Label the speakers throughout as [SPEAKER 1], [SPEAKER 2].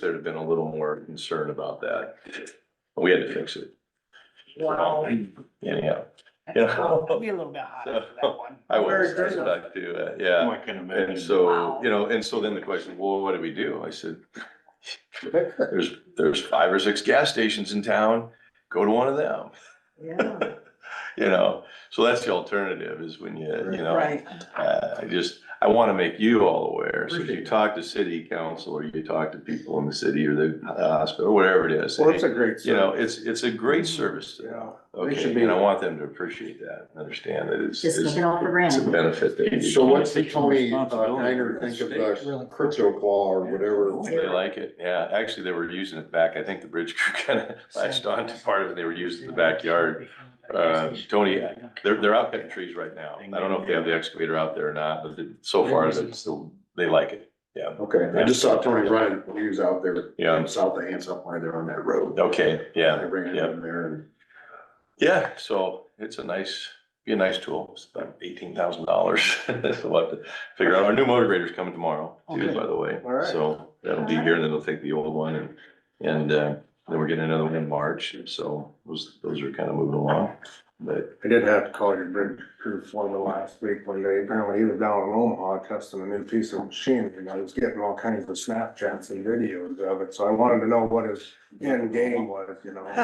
[SPEAKER 1] there'd have been a little more concern about that. But We had to fix it.
[SPEAKER 2] Wow.
[SPEAKER 1] Anyhow, Yeah.
[SPEAKER 2] It'll Be a little bit hot after that one.
[SPEAKER 1] I was
[SPEAKER 2] Very good.
[SPEAKER 1] back to, uh, yeah.
[SPEAKER 3] Oh, I can
[SPEAKER 1] And so, you know, and so then the question, well, what do we do? I said, there's, there's five or six gas stations in town, go to one of them.
[SPEAKER 2] Yeah,
[SPEAKER 1] You know, so that's the alternative is when you, you know,
[SPEAKER 2] right.
[SPEAKER 1] Uh, I just, I want to make you all aware, so if
[SPEAKER 4] Appreciate
[SPEAKER 1] you
[SPEAKER 4] it.
[SPEAKER 1] talk to city council, or you talk to people in the city, or the uh, hospital, whatever it is.
[SPEAKER 4] Well, it's
[SPEAKER 1] hey,
[SPEAKER 4] a great.
[SPEAKER 1] You know, it's, it's a great service, to them.
[SPEAKER 4] Yeah. They should
[SPEAKER 1] okay,
[SPEAKER 4] be-
[SPEAKER 1] and I want them to appreciate that, and understand that it's.
[SPEAKER 5] Just
[SPEAKER 1] it's-
[SPEAKER 5] looking out for
[SPEAKER 1] It's
[SPEAKER 5] granted.
[SPEAKER 1] a benefit that
[SPEAKER 4] So
[SPEAKER 1] you,
[SPEAKER 4] what's the Tony uh, Niner think of the crypto claw or whatever?
[SPEAKER 1] they like it, yeah, actually, they were using it back, I think the bridge crew kind of latched on to part of it, they were using the backyard. Uh, Tony, They're, they're out cutting trees right now, I don't know if they have the excavator out there or not, but they- so far, it's still, they like it, yeah,
[SPEAKER 4] Okay, I just saw Tony Ryan, he was out there, um,
[SPEAKER 1] yeah,
[SPEAKER 4] south of Hanson, where they're on that road.
[SPEAKER 1] okay, yeah.
[SPEAKER 4] They bring it in there and.
[SPEAKER 1] Yeah, so it's a nice, be a nice tool. It's about eighteen thousand dollars. So we'll have to figure out. Our new motivator's coming tomorrow too, by the way.
[SPEAKER 4] All right.
[SPEAKER 1] So that'll be here and then they'll take the old one and, and, uh, then we're getting another one in March. So those, those are kind of moving along. But
[SPEAKER 4] I did have to call your bridge crew foreman last week when they, apparently he was down in Omaha testing a new piece of machinery and I was getting all kinds of Snapchats and videos of it, so I wanted to know what his end game was, you know?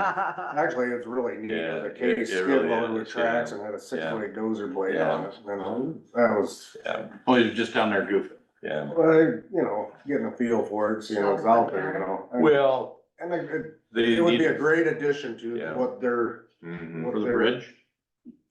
[SPEAKER 4] Actually, it's really neat,
[SPEAKER 1] Yeah,
[SPEAKER 4] the
[SPEAKER 1] it- it
[SPEAKER 4] case skid
[SPEAKER 1] really
[SPEAKER 4] loaded with
[SPEAKER 1] is, um, yeah.
[SPEAKER 4] tracks and had a six foot dozer blade
[SPEAKER 1] Yeah.
[SPEAKER 4] on it, you know? That was,
[SPEAKER 1] yeah,
[SPEAKER 3] Well, you're just down there goofing.
[SPEAKER 1] yeah.
[SPEAKER 4] well, you know, getting a feel for it, seeing what's out there, you know? And-
[SPEAKER 1] Well,
[SPEAKER 4] And it- it,
[SPEAKER 1] they.
[SPEAKER 4] it would be a
[SPEAKER 1] need-
[SPEAKER 4] great addition to
[SPEAKER 1] Yeah.
[SPEAKER 4] what they're,
[SPEAKER 1] Mhm,
[SPEAKER 4] what
[SPEAKER 3] For the
[SPEAKER 4] they're-
[SPEAKER 3] bridge?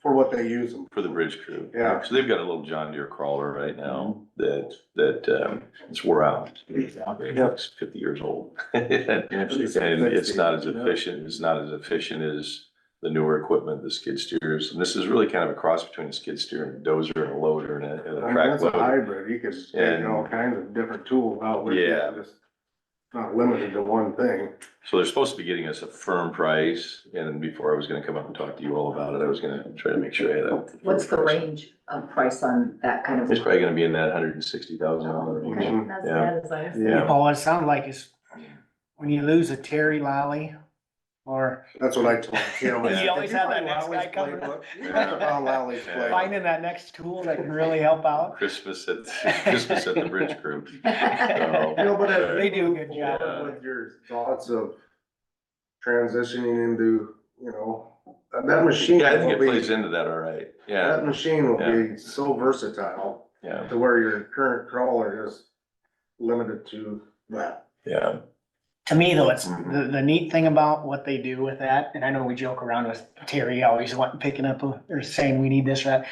[SPEAKER 4] For what they use them
[SPEAKER 1] For the bridge crew.
[SPEAKER 4] Yeah. Mm-hmm.
[SPEAKER 1] So they've got a little John Deere crawler right now that, that, um, it's wore out. It's fifty years old. And it's not as efficient, it's not as efficient as the newer equipment, the skid steers. And this is really kind of a cross between a skid steer and a dozer and a loader and a, and
[SPEAKER 4] I
[SPEAKER 1] a
[SPEAKER 4] mean,
[SPEAKER 1] track
[SPEAKER 4] That's a
[SPEAKER 1] loader.
[SPEAKER 4] hybrid, you could take all kinds of different tools out with it,
[SPEAKER 1] Yeah.
[SPEAKER 4] just not limited to one thing.
[SPEAKER 1] So they're supposed to be getting us a firm price. And before I was gonna come up and talk to you all about it, I was gonna try to make sure I had a. firm
[SPEAKER 5] What's the
[SPEAKER 1] price.
[SPEAKER 5] range of price on that kind of?
[SPEAKER 1] It's probably gonna be in that hundred and sixty thousand dollar range.
[SPEAKER 5] Okay, that's
[SPEAKER 1] Yeah.
[SPEAKER 5] bad as I-
[SPEAKER 1] Yeah.
[SPEAKER 2] Oh, it sounded like it's, when you lose a Terry Lally or
[SPEAKER 4] That's what I told him.
[SPEAKER 2] You always have that next guy coming up.
[SPEAKER 4] That's about Lowry's
[SPEAKER 1] Yeah.
[SPEAKER 4] playbook.
[SPEAKER 2] finding that next tool that can really help out.
[SPEAKER 1] Christmas at, Christmas at the Bridge Group.
[SPEAKER 2] Yeah.
[SPEAKER 4] No, but uh, I-
[SPEAKER 2] They do a good job.
[SPEAKER 1] Yeah.
[SPEAKER 4] With your thoughts of transitioning into, you know, that- that machine
[SPEAKER 1] Yeah, I think it
[SPEAKER 4] will
[SPEAKER 1] plays
[SPEAKER 4] be,
[SPEAKER 1] into that all right.
[SPEAKER 4] that
[SPEAKER 1] Yeah,
[SPEAKER 4] machine will be so versatile
[SPEAKER 1] yeah,
[SPEAKER 4] to where your current crawler is limited to that.
[SPEAKER 1] yeah.
[SPEAKER 2] To me though, it's
[SPEAKER 1] Mm-hmm.
[SPEAKER 2] the, the neat thing about what they do with that, and I know we joke around with Terry always wanting, picking up or saying we need this or that.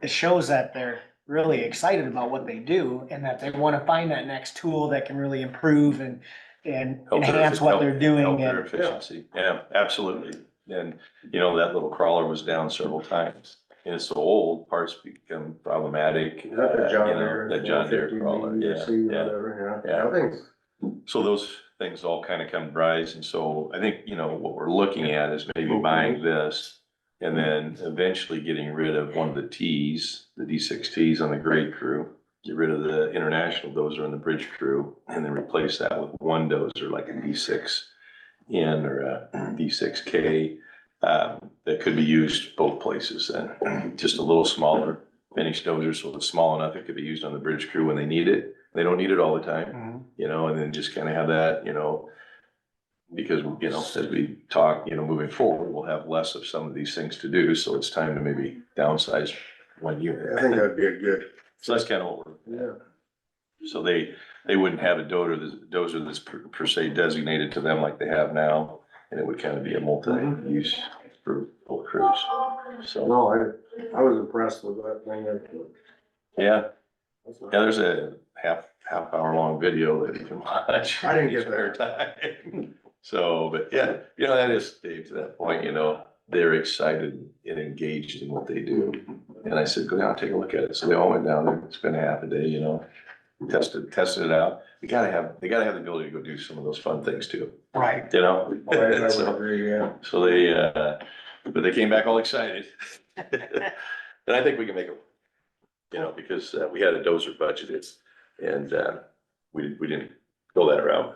[SPEAKER 2] It shows that they're really excited about what they do and that they wanna find that next tool that can really improve and, and
[SPEAKER 1] Help their-
[SPEAKER 2] enhance what they're
[SPEAKER 1] help-
[SPEAKER 2] doing
[SPEAKER 1] Help their
[SPEAKER 2] and.
[SPEAKER 1] efficiency. Yeah, absolutely. And, you know, that little crawler was down several times. And it's so old, parts become problematic.
[SPEAKER 4] Is uh, that
[SPEAKER 1] uh,
[SPEAKER 4] the John
[SPEAKER 1] you know,
[SPEAKER 4] Deere?
[SPEAKER 1] That John Deere
[SPEAKER 4] 450
[SPEAKER 1] crawler, yeah,
[SPEAKER 4] BDC,
[SPEAKER 1] yeah.
[SPEAKER 4] whatever,
[SPEAKER 1] yeah.
[SPEAKER 4] I think
[SPEAKER 1] So those things all kind of come to rise, and so I think, you know, what we're looking at is maybe buying this. And then eventually getting rid of one of the Ts, the D six Ts on the grade crew. Get rid of the international dozer and the bridge crew, and then replace that with one dozer like a D six N or a D six K. Um, that could be used both places then, just a little smaller finished dozer, so it's small enough, it could be used on the bridge crew when they need it. They don't need it all the time
[SPEAKER 2] Mhm.
[SPEAKER 1] you know, and then just kind of have that, you know, because, you know, as we talk, you know, moving forward, we'll have less of some of these things to do, so it's time to maybe downsize one
[SPEAKER 4] I think
[SPEAKER 1] unit.
[SPEAKER 4] that'd be a good,
[SPEAKER 1] So that's kind of what we're,
[SPEAKER 4] yeah.
[SPEAKER 1] so they, they wouldn't have a dozer, that's- dozer that's per per se designated to them like they have now, and it would kind of be a multi-use for both crews, so,
[SPEAKER 4] No, I, I was impressed with that thing.
[SPEAKER 1] yeah, yeah,
[SPEAKER 4] That's-
[SPEAKER 1] there's a half, half hour long video that you can watch.
[SPEAKER 4] I didn't get
[SPEAKER 1] in your spare time. So, but yeah, you know, that is, Dave, to that point, you know, they're excited and engaged in what they do. And I said, go down, take a look at it. So they all went down there, spent half a day, you know, tested, tested it out. They gotta have, they gotta have the ability to go do some of those fun things too,
[SPEAKER 2] Right.
[SPEAKER 1] you know?
[SPEAKER 4] I I would
[SPEAKER 1] So-
[SPEAKER 4] agree, yeah.
[SPEAKER 1] so they, uh, but they came back all excited. And I think we can make it, you know, because uh, we had a dozer budgeted and, uh, we, we didn't go that route.